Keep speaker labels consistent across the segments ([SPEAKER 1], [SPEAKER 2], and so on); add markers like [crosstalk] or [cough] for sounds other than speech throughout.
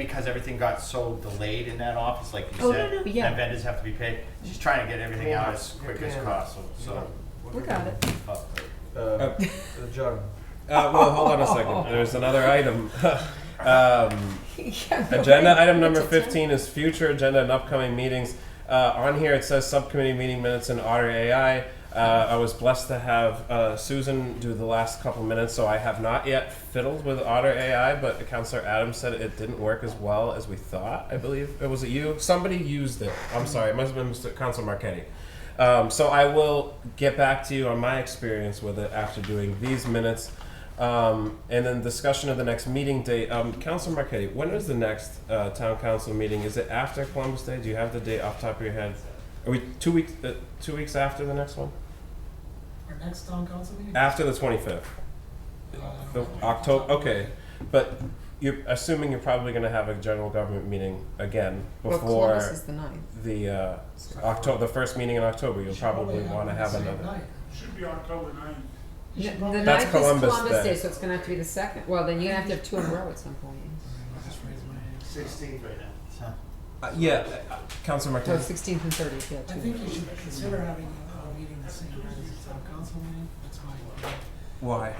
[SPEAKER 1] because everything got so delayed in that office, like
[SPEAKER 2] Oh,
[SPEAKER 1] you said,
[SPEAKER 2] no, no,
[SPEAKER 1] and
[SPEAKER 2] yeah.
[SPEAKER 1] vendors have to be paid, she's trying to get everything out as quick as
[SPEAKER 3] Yeah.
[SPEAKER 1] possible, so.
[SPEAKER 2] We got it. [laughs]
[SPEAKER 1] uh,
[SPEAKER 3] Uh, the jug.
[SPEAKER 4] Uh, well, hold on a second. There's another item. [laughs] um, agenda item number 15 is future agenda and upcoming meetings. Uh, on here it says subcommittee meeting minutes and otter AI. Uh, I was blessed to have uh, Susan do the last couple minutes, so I have not yet fiddled with otter AI, but Counselor Adams said it didn't work as well as we thought, I believe. Uh, Was it you? Somebody used it. I'm sorry, it must have been Mr. Counselor Marchetti. Um, so I will get back to you on my experience with it after doing these minutes. Um, and then discussion of the next meeting date. Um, Council Marquetti, when is the next uh, town council meeting? Is it after Columbus Day? Do you have the date off the top of your head? Are we two weeks? Uh, two weeks after the next one?
[SPEAKER 5] Our next town council meeting?
[SPEAKER 4] After the twenty fifth, October. Okay, but you're assuming you're probably going to have a general government meeting again
[SPEAKER 2] Well,
[SPEAKER 4] before
[SPEAKER 2] Columbus is the ninth.
[SPEAKER 4] the uh, October. The first meeting in October. You'll
[SPEAKER 5] Should
[SPEAKER 4] probably want to
[SPEAKER 5] it
[SPEAKER 4] have
[SPEAKER 5] the same
[SPEAKER 4] another.
[SPEAKER 5] night.
[SPEAKER 6] Should be October ninth.
[SPEAKER 5] You should
[SPEAKER 2] No, The
[SPEAKER 5] probably-
[SPEAKER 4] That's
[SPEAKER 2] ninth is
[SPEAKER 4] Columbus
[SPEAKER 2] Columbus
[SPEAKER 4] Day.
[SPEAKER 2] Day, so it's gonna have to be the second, well, then you're gonna have to have two in a row at some point.
[SPEAKER 5] I just raised my hand.
[SPEAKER 1] Sixteen right now.
[SPEAKER 4] Uh, yeah, uh, Council
[SPEAKER 2] So
[SPEAKER 4] Marquetti.
[SPEAKER 2] sixteenth and thirtieth, yeah,
[SPEAKER 5] I
[SPEAKER 2] two.
[SPEAKER 5] think you should consider having a meeting the same night as the town council meeting, that's my opinion.
[SPEAKER 4] Why?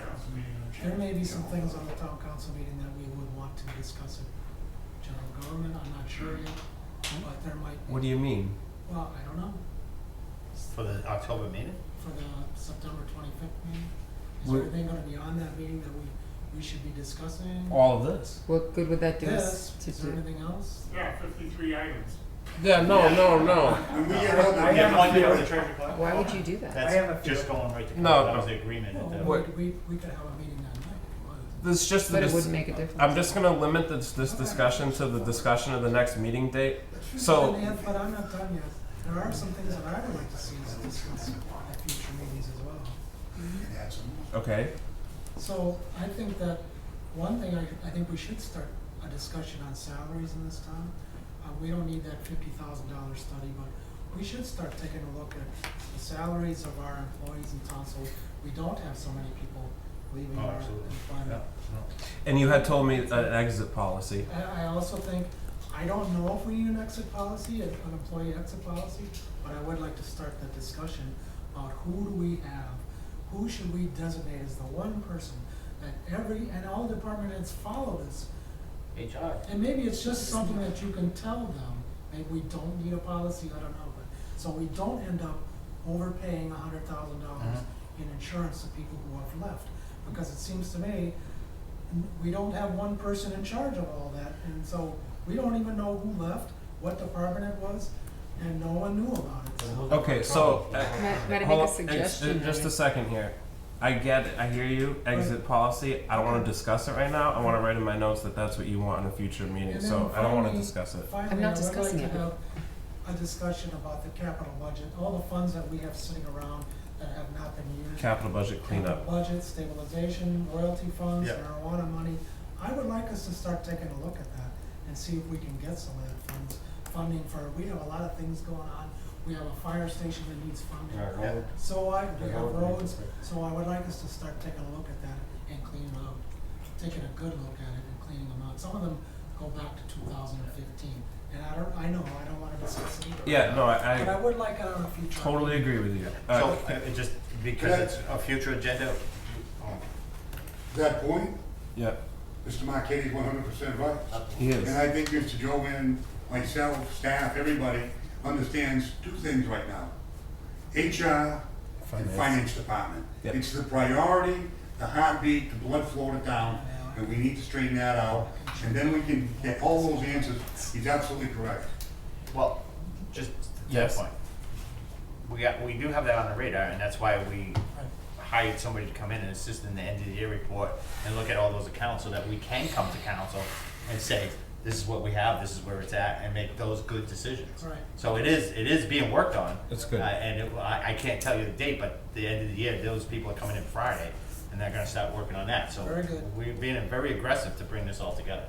[SPEAKER 5] There may be some things on the town council meeting that we would want to discuss in general government, I'm not sure yet, but there might
[SPEAKER 4] What do
[SPEAKER 5] be,
[SPEAKER 4] you mean?
[SPEAKER 5] well, I don't know,
[SPEAKER 1] For the October meeting?
[SPEAKER 5] for the September twenty-fifth meeting. Is
[SPEAKER 4] We're-
[SPEAKER 5] there anything gonna be on that meeting that we, we should be discussing?
[SPEAKER 4] All of this.
[SPEAKER 2] What good would that do us
[SPEAKER 5] This,
[SPEAKER 2] to
[SPEAKER 5] is there
[SPEAKER 2] do?
[SPEAKER 5] anything else?
[SPEAKER 6] Yeah, fifty-three items.
[SPEAKER 4] Yeah. No. No. No.
[SPEAKER 1] I have one year on the treasure clerk.
[SPEAKER 2] Why would you do that?
[SPEAKER 1] That's just going right to, court.
[SPEAKER 4] No.
[SPEAKER 1] that was the agreement at the.
[SPEAKER 5] Well, we, we, we could have a meeting that night if you wanted.
[SPEAKER 4] This just the
[SPEAKER 2] But it
[SPEAKER 4] dis-
[SPEAKER 2] wouldn't make a difference.
[SPEAKER 4] I'm just gonna limit this, this discussion to the discussion of the next meeting date. So-
[SPEAKER 5] And if- But I'm not done yet. There are some things that I would like to see us discuss at future meetings as well.
[SPEAKER 4] Okay.
[SPEAKER 5] So I think that, one thing, I, I think we should start a discussion on salaries in this town. Uh, we don't need that fifty thousand dollar study, but we should start taking a look at the salaries of our employees in town, so we don't have so many people leaving
[SPEAKER 1] Oh,
[SPEAKER 5] our
[SPEAKER 1] absolutely.
[SPEAKER 5] employment.
[SPEAKER 4] And you had told me an exit policy.
[SPEAKER 5] I, I also think, I don't know if we need an exit policy, an an employee exit policy, but I would like to start the discussion about who do we have? Who should we designate as the one person that every, and all department heads follow this?
[SPEAKER 1] HR.
[SPEAKER 5] And maybe it's just something that you can tell them, maybe we don't need a policy, I don't know, but, so we don't end up overpaying a hundred thousand dollars in insurance to people who have left, because it seems to me, n- we don't have one person in charge of all that, and so we don't even know who left, what department it was, and no one knew about it, so.
[SPEAKER 4] Okay. So. uh,
[SPEAKER 2] Might, might I
[SPEAKER 4] hold
[SPEAKER 2] make a
[SPEAKER 4] on, ex-
[SPEAKER 2] suggestion?
[SPEAKER 4] uh, just
[SPEAKER 2] Henry?
[SPEAKER 4] a second here. I get it. I hear you. Exit policy. I don't want to discuss it right now. I want to write in my notes that that's what you want in a future meeting.
[SPEAKER 5] And
[SPEAKER 4] So
[SPEAKER 5] then
[SPEAKER 4] I don't want to
[SPEAKER 5] finally-
[SPEAKER 4] discuss it.
[SPEAKER 2] not
[SPEAKER 5] Finally, I would like
[SPEAKER 2] discussing
[SPEAKER 5] to
[SPEAKER 2] it.
[SPEAKER 5] have a discussion about the capital budget, all the funds that we have sitting around that have not been used.
[SPEAKER 4] Capital budget
[SPEAKER 5] capital
[SPEAKER 4] cleanup.
[SPEAKER 5] budget, stabilization, royalty funds,
[SPEAKER 1] Yeah.
[SPEAKER 5] marijuana money. I would like us to start taking a look at that and see if we can get some of that funds, funding for, we have a lot of things going on. We have a fire station that needs funding.
[SPEAKER 1] Yeah.
[SPEAKER 5] So I, we
[SPEAKER 1] The
[SPEAKER 5] have
[SPEAKER 1] road
[SPEAKER 5] roads,
[SPEAKER 1] needs work.
[SPEAKER 5] so I would like us to start taking a look at that and cleaning them out. Taking a good look at it and cleaning them out. Some of them go back to two thousand and fifteen. And I don't, I know, I don't wanna discuss it either.
[SPEAKER 4] Yeah. No.
[SPEAKER 5] But I
[SPEAKER 4] I, I
[SPEAKER 5] would like it on a future.
[SPEAKER 4] totally agree with you.
[SPEAKER 1] So,
[SPEAKER 4] Uh,
[SPEAKER 1] uh, it just, because it's a future agenda, oh,
[SPEAKER 6] That point,
[SPEAKER 4] yeah.
[SPEAKER 6] Mr. Marquetti's one hundred percent right.
[SPEAKER 4] He
[SPEAKER 6] And
[SPEAKER 4] is.
[SPEAKER 6] I think Mr. Joanne, myself, staff, everybody understands two things right now. HR and
[SPEAKER 4] Finance.
[SPEAKER 6] Finance Department.
[SPEAKER 4] Yep.
[SPEAKER 6] It's the priority, the heartbeat, the blood flow to town, and we need to straighten that out. And then we can get all those answers. He's absolutely correct.
[SPEAKER 1] well, just to that
[SPEAKER 4] Yes.
[SPEAKER 1] point. We got, we do have that on the radar, and that's why we
[SPEAKER 5] Right.
[SPEAKER 1] hired somebody to come in and assist in the end of the year report and look at all those accounts so that we can come to council and say, this is what we have, this is where it's at, and make those good decisions.
[SPEAKER 5] Right.
[SPEAKER 1] So it is, it is being worked on.
[SPEAKER 4] That's good.
[SPEAKER 1] Uh, And it- I, I can't tell you the date, but the end of the year, those people are coming in Friday, and they're gonna start working on that, so.
[SPEAKER 5] Very good.
[SPEAKER 1] We're being very aggressive to bring this all together.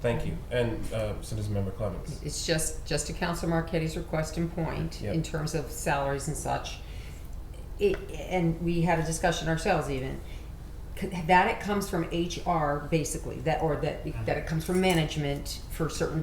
[SPEAKER 4] Thank you. And uh, Citizen Member Clements.
[SPEAKER 2] It's just, just to Council Marquette's request and point, in
[SPEAKER 4] Yep.
[SPEAKER 2] terms of salaries and such. It, and we had a discussion ourselves even, c- that it comes from HR basically, that, or that, that it comes from management for certain